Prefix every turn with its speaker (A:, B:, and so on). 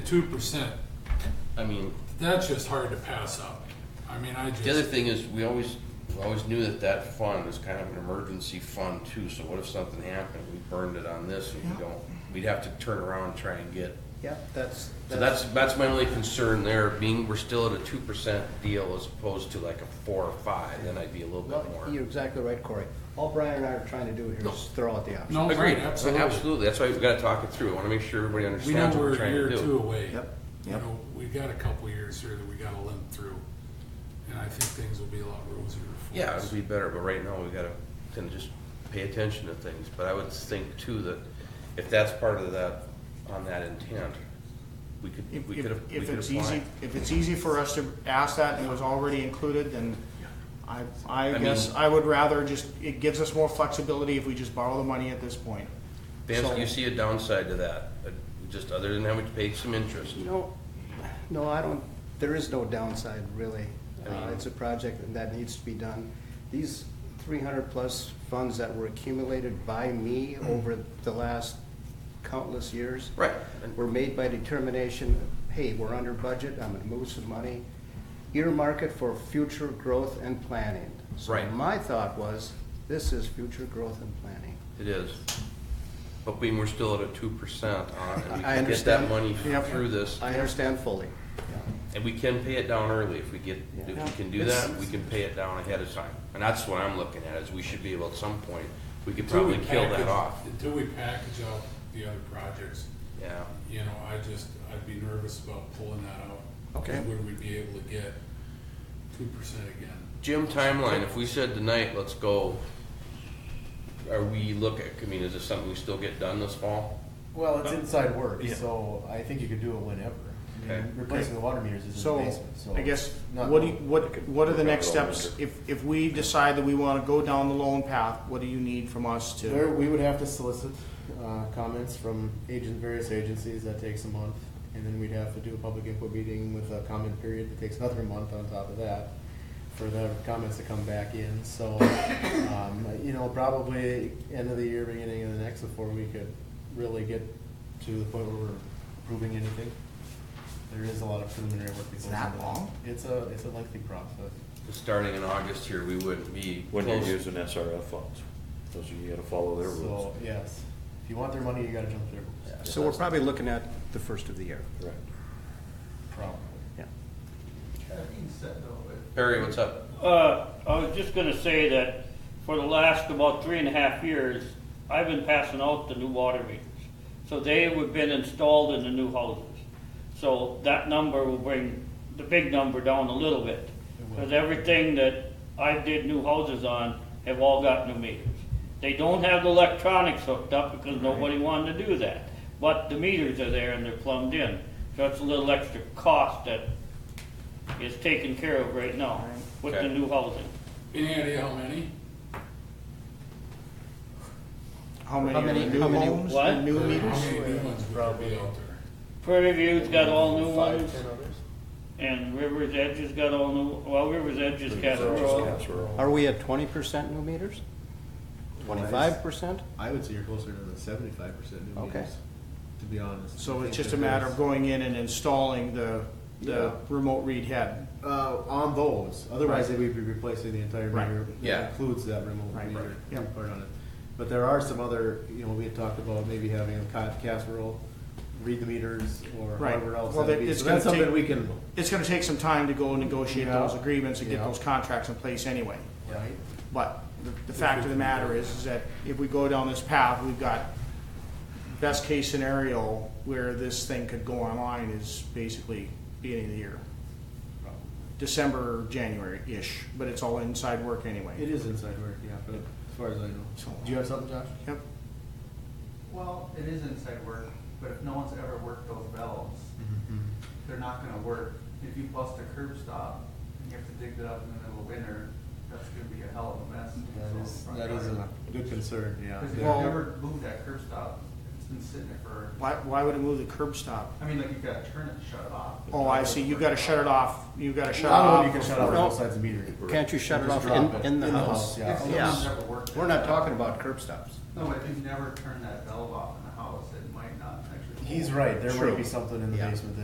A: two percent,
B: I mean,
A: that's just hard to pass up. I mean, I
B: the other
A: just,
B: thing is, we always, we always knew that that fund was kind of an emergency fund too, so what if something happened, we burned it on this and
C: Yeah.
B: we don't, we'd have to turn around and try and get.
C: Yeah, that's,
B: So that's, that's my only concern there, being we're still at a two percent deal as opposed to like a four or five, then I'd be a little
C: Well,
B: bit more.
C: you're exactly right, Corey. All Brian and I are trying to do here
B: No.
C: is throw out the options.
A: no, right,
B: Agreed,
A: absolutely.
B: absolutely, that's why we've gotta talk it through, I wanna make sure everybody
A: We know
B: understands what
A: we're
B: we're
A: a
B: trying to
A: year or
B: do.
A: two away.
C: Yep,
A: You
C: yep.
A: know, we've got a couple years here that we gotta limp through, and I think things will be a lot rosier for
B: Yeah,
A: us.
B: it'd be better, but right now we gotta kind of just pay attention to things, but I would think too that if that's part of that, on that intent, we could,
D: If,
B: we
D: if-
B: could, we
D: if
B: could
D: it's easy,
B: apply.
D: if it's easy for us to ask that and it was already included, then I, I
B: I
D: guess
B: mean-
D: I would rather just, it gives us more flexibility if we just borrow the money at this point.
B: Vance,
D: So-
B: do you see a downside to that, Uh, just other than having to pay some interest?
C: No, no, I don't, there is no downside, really.
B: I
C: Uh,
B: mean-
C: It's a project that needs to be done. These three hundred plus funds that were accumulated by me over the last countless years.
B: Mm-hmm. Right, and-
C: Were made by determination, hey, we're under budget, I'm gonna move some money, earmark it for future growth and planning.
B: Right.
C: So my thought was, this is future growth and planning.
B: it is. But being we're still at a two percent on,
C: I- I
B: and we can get that
C: understand.
B: money
D: Yep.
B: through this,
C: I understand fully.
B: and we can pay it down early if we get, if
C: Yeah.
B: we can do
C: It's-
B: that, we can pay it down ahead of time. And that's what I'm looking at, is we should be able at some point, we could
A: Until we
B: probably kill that
A: package-
B: off,
A: Until we package up the other projects,
B: yeah.
A: you know, I just, I'd be nervous about pulling that out.
C: Okay.
A: Would we be able to get two percent again?
B: Jim, timeline, if we said tonight, let's go, are we looking, I mean, is this something we still get done this fall?
E: Well, it's inside work, so I think you could do it whenever. I mean,
B: Okay.
E: Replacing the water meters is in the
D: So,
E: basement, so.
D: I guess,
E: not-
D: what do, you- what, what are the
B: work
D: next
B: out all
D: steps? If, if we decide that we wanna go down the loan path, what do you need from us
E: There,
D: to?
E: we would have to solicit, uh, comments from agent, various agencies, that takes a month. And then we'd have to do a public input meeting with a comment period that takes another month on top of that for the comments to come back in, so, um, you know, probably end of the year, beginning of the next before we could really get to the point where we're approving anything. There is a lot of preliminary work that goes into
D: that long?
E: It's a, it's a lengthy process.
B: Starting in August here, we wouldn't be
F: When you're
B: close.
F: using SRF funds, those are, you gotta follow their
E: So,
F: rules.
E: yes, if you want their money, you gotta jump their rules.
C: So we're probably looking at the first of the year.
F: Correct.
E: Probably.
C: Yeah.
B: Perry, what's up?
G: Uh, I was just gonna say that for the last about three and a half years, I've been passing out the new water meters. So they have been installed in the new houses. So that number will bring the big number down a little bit. Because everything that I did new houses on have all got new meters. They don't have the electronics hooked up because nobody wanted to do that. But the meters are there and they're plumbed in. So it's a little extra cost that is taken care of right now with
B: Okay.
G: the new housing.
A: Any idea how many?
D: How many
C: How
D: are
C: many-
D: the new
C: how many-
D: homes,
G: what?
D: the new
A: Uh, How many
D: meters?
A: new ones would there be out there?
G: Prairie View's got all new
E: Five,
G: ones,
E: ten oh. others?
G: and River's Edge has got all new, well, River's Edge has got rural.
F: Just casserole.
C: Are we at twenty percent new meters? Twenty-five percent?
E: I would say you're closer to the seventy-five percent new
C: Okay.
E: meters, to be honest.
D: So it's just a matter of going in and installing the, the
E: Yeah.
D: remote read head.
E: Uh, on those, otherwise they would be replacing the entire
D: Right.
E: meter. that
B: Yeah.
E: Includes that remote
D: Right.
E: meter
D: Yeah.
E: part on it. But there are some other, you know, we had talked about maybe having a ca- casserole, read the meters, or
D: Right.
E: however else.
D: Well,
E: that'd
D: that-
E: be.
D: it's
E: So that's
D: gonna
E: something we
D: take-
E: can,
D: It's gonna take some time to go and negotiate
E: Yeah.
D: those agreements and get
E: Yeah.
D: those contracts in place anyway.
E: right?
D: But the- the fact of the matter is, is that if we go down this path, we've got best case scenario where this thing could go online is basically beginning of the year. December, January-ish, but it's all inside work
E: It
D: anyway.
E: is inside work, yeah, but as far as I know. Do you have something, Josh?
D: Yep.
H: Well, it is inside work, but if no one's ever worked those valves,
E: Mm-hmm.
H: they're not gonna work. If you bust a curb stop and you have to dig it up in the middle of winter, that's gonna be a hell of a mess.
E: That is,
H: So,
E: that is a good concern, yeah.
H: Cause you've
D: Well-
H: never moved that curb stop, it's been sitting there for,
D: Why, why would it move the curb stop?
H: I mean, like you've gotta turn it and shut it off.
D: Oh, I see, you've gotta shut it off, you've gotta shut it
E: I
D: off.
E: don't know if you can shut off
C: No.
E: both sides of the meter.
C: Can't you shut it
E: Just
C: off
E: drop
C: in,
E: it.
C: in the
E: In the
C: house?
E: house, yeah.
H: If
C: Yeah.
H: someone's never worked.
C: We're
H: it.
C: not talking about curb stops.
H: No, but if you've never turned that valve off in the house, it might not actually.
E: He's
H: hold.
E: right, there
C: True.
E: might be something in the
C: Yeah.
E: basement that